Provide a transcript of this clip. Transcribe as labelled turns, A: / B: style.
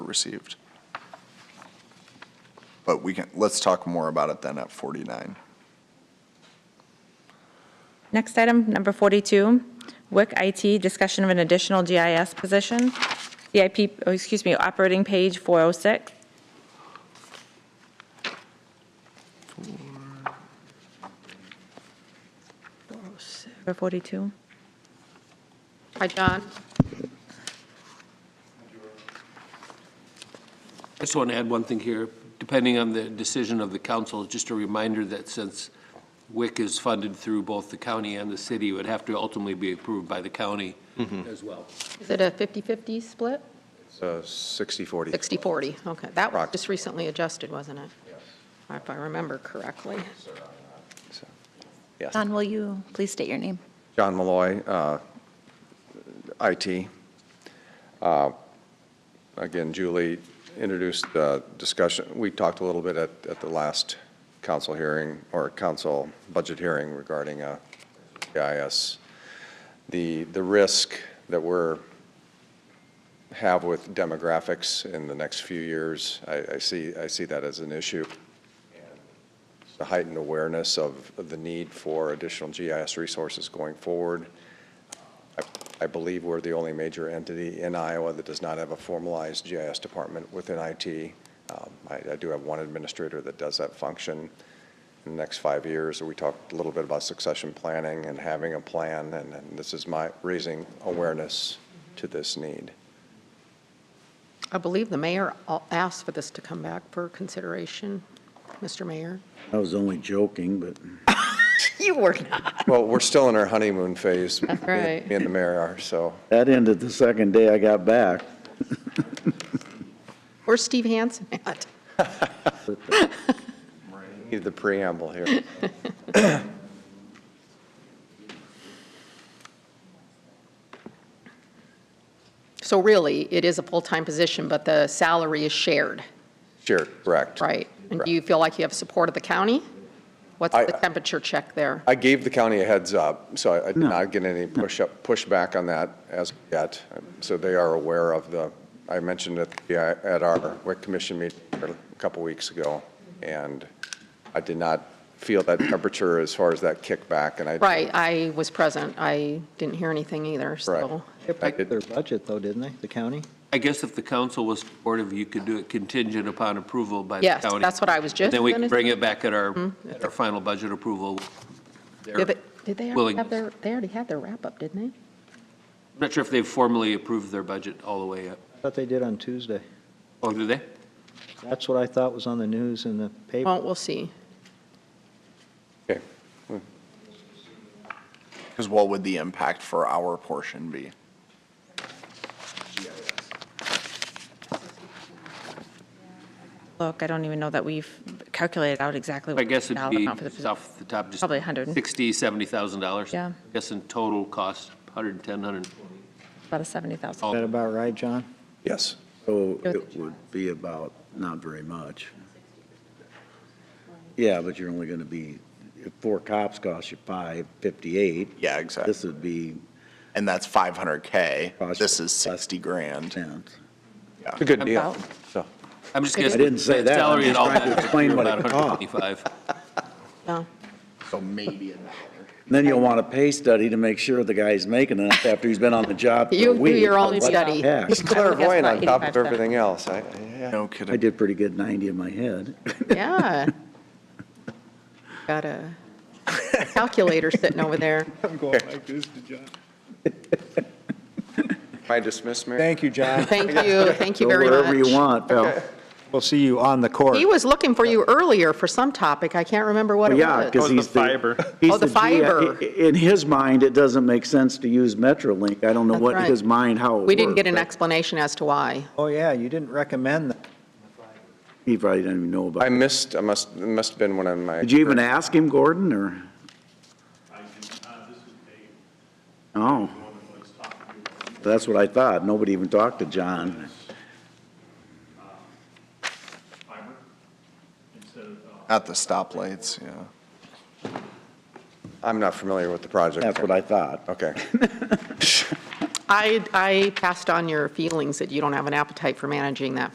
A: received.
B: But we can, let's talk more about it then at 49.
C: Next item, number 42, WIC IT, discussion of an additional GIS position, CIP, oh, excuse me, operating page 406. Number 42.
D: Hi, John.
E: I just want to add one thing here. Depending on the decision of the council, just a reminder that since WIC is funded through both the county and the city, it would have to ultimately be approved by the county as well.
D: Is it a 50-50 split?
F: So 60/40.
D: 60-40, okay. That was
F: Rock.
D: just recently adjusted, wasn't it? If I remember correctly.
G: John, will you please state your name?
F: John Malloy, uh, IT. Uh, Again, Julie introduced the discussion, we talked a little bit at, at the last council hearing, or council budget hearing regarding uh, GIS. The, the risk that we're, have with demographics in the next few years, I, I see, I see that as an issue. the heightened awareness of of the need for additional GIS resources going forward. I- I believe we're the only major entity in Iowa that does not have a formalized GIS department within IT. Um, I I do have one administrator that does that function. In the next five years, we talked a little bit about succession planning and having a plan, and and this is my, raising awareness to this need.
D: I believe the mayor al- asked for this to come back for consideration, Mr. Mayor.
H: I was only joking, but
D: You were not.
F: Well, we're still in our honeymoon phase. That's
D: right.
F: Me and the mayor are, so.
H: that ended the second day I got back.
D: Where's Steve Hansen at?
F: Need the preamble here.
D: So really, it is a full-time position, but the salary is shared,
F: Sure, correct.
D: right? And do you feel like you have support of the county? What's
F: I-
D: the temperature check there?
F: I gave the county a heads up, so I- I did not get any push up, pushback on that as yet. So they are aware of the, I mentioned it yeah, at our WIC commission meeting a couple weeks ago, and I did not feel that temperature as far as that kickback, and I.
D: Right, I was present. I didn't hear anything either, so.
F: Correct. I did-
I: Their budget though, didn't they, the county?
E: I guess if the council was supportive, you could do it contingent upon approval by the
D: Yes,
E: county.
D: that's what I was just
E: Then we
D: gonna
E: can bring it back at our,
C: Mm-hmm.
E: at our final budget approval. Their-
D: Did they- did they already
E: willingness.
D: have their, they already had their wrap-up, didn't they?
E: I'm not sure if they've formally approved their budget all the way up.
I: I thought they did on Tuesday.
E: Oh, do they?
I: That's what I thought was on the news and the paper.
D: Well, we'll see.
F: okay.
B: Because what would the impact for our portion be?
C: Look, I don't even know that we've calculated out exactly
E: I
C: what
E: guess
C: the
E: it'd
C: dollar
E: be
C: amount for the
E: just
C: position.
E: off the top, just.
C: Probably 100.
E: Sixty, seventy thousand dollars.
C: Yeah.
E: I guess in total cost, hundred and ten, hundred,
C: About a 70,000.
I: Is that about right, John?
F: Yes.
H: So it would be about, not very much. Yeah, but you're only going to be, if four cops cost you five fifty-eight,
B: Yeah, exactly.
H: this would be
B: And that's 500K.
H: Cost-
B: This is 60 grand.
H: ten.
F: It's a good deal. So,
E: I'm just guessing.
H: didn't say that. I'm
E: Salary and
H: just
E: all
H: trying to
E: that.
H: explain what it
E: About
H: cost.
E: 125.
D: Yeah.
B: So maybe a dollar.
H: Then you'll want a pay study to make sure the guy's making enough after he's been on the job for
D: You
H: a
D: do
H: week.
D: your own
H: What the
D: study.
H: heck?
F: He's clairvoyant on top of
C: 85,000.
F: everything else. I, I- yeah.
B: No
H: I
B: kidding.
H: did pretty good ninety in my head.
D: Yeah. Got a calculator sitting over there.
F: Am I dismissed, Mayor?
I: Thank you, John.
D: Thank you, thank you
H: Go
D: very
H: Wherever you
D: much.
H: want, pal.
I: We'll see you on the court.
D: He was looking for you earlier for some topic. I can't remember what it
H: Oh, Yeah, because
D: was.
H: he's the. fiber. He's
D: Oh, the
H: G-
D: fiber.
H: i- In his mind, it doesn't make sense to use MetroLink. I don't know
D: That's
H: what
D: right.
H: his mind, how it
D: We didn't get
H: worked,
D: an
H: but
D: explanation as to why.
I: Oh, yeah, you didn't recommend that.
H: He probably didn't even know about
F: I
H: it.
F: missed, I must, it must have been one of my.
H: Did you even ask him, Gordon, or? Oh. That's what I thought. Nobody even talked to John.
B: At the stoplights, yeah.
F: I'm not familiar with the project.
H: That's what I thought.
F: Okay.
D: I, I passed on your feelings that you don't have an appetite for managing that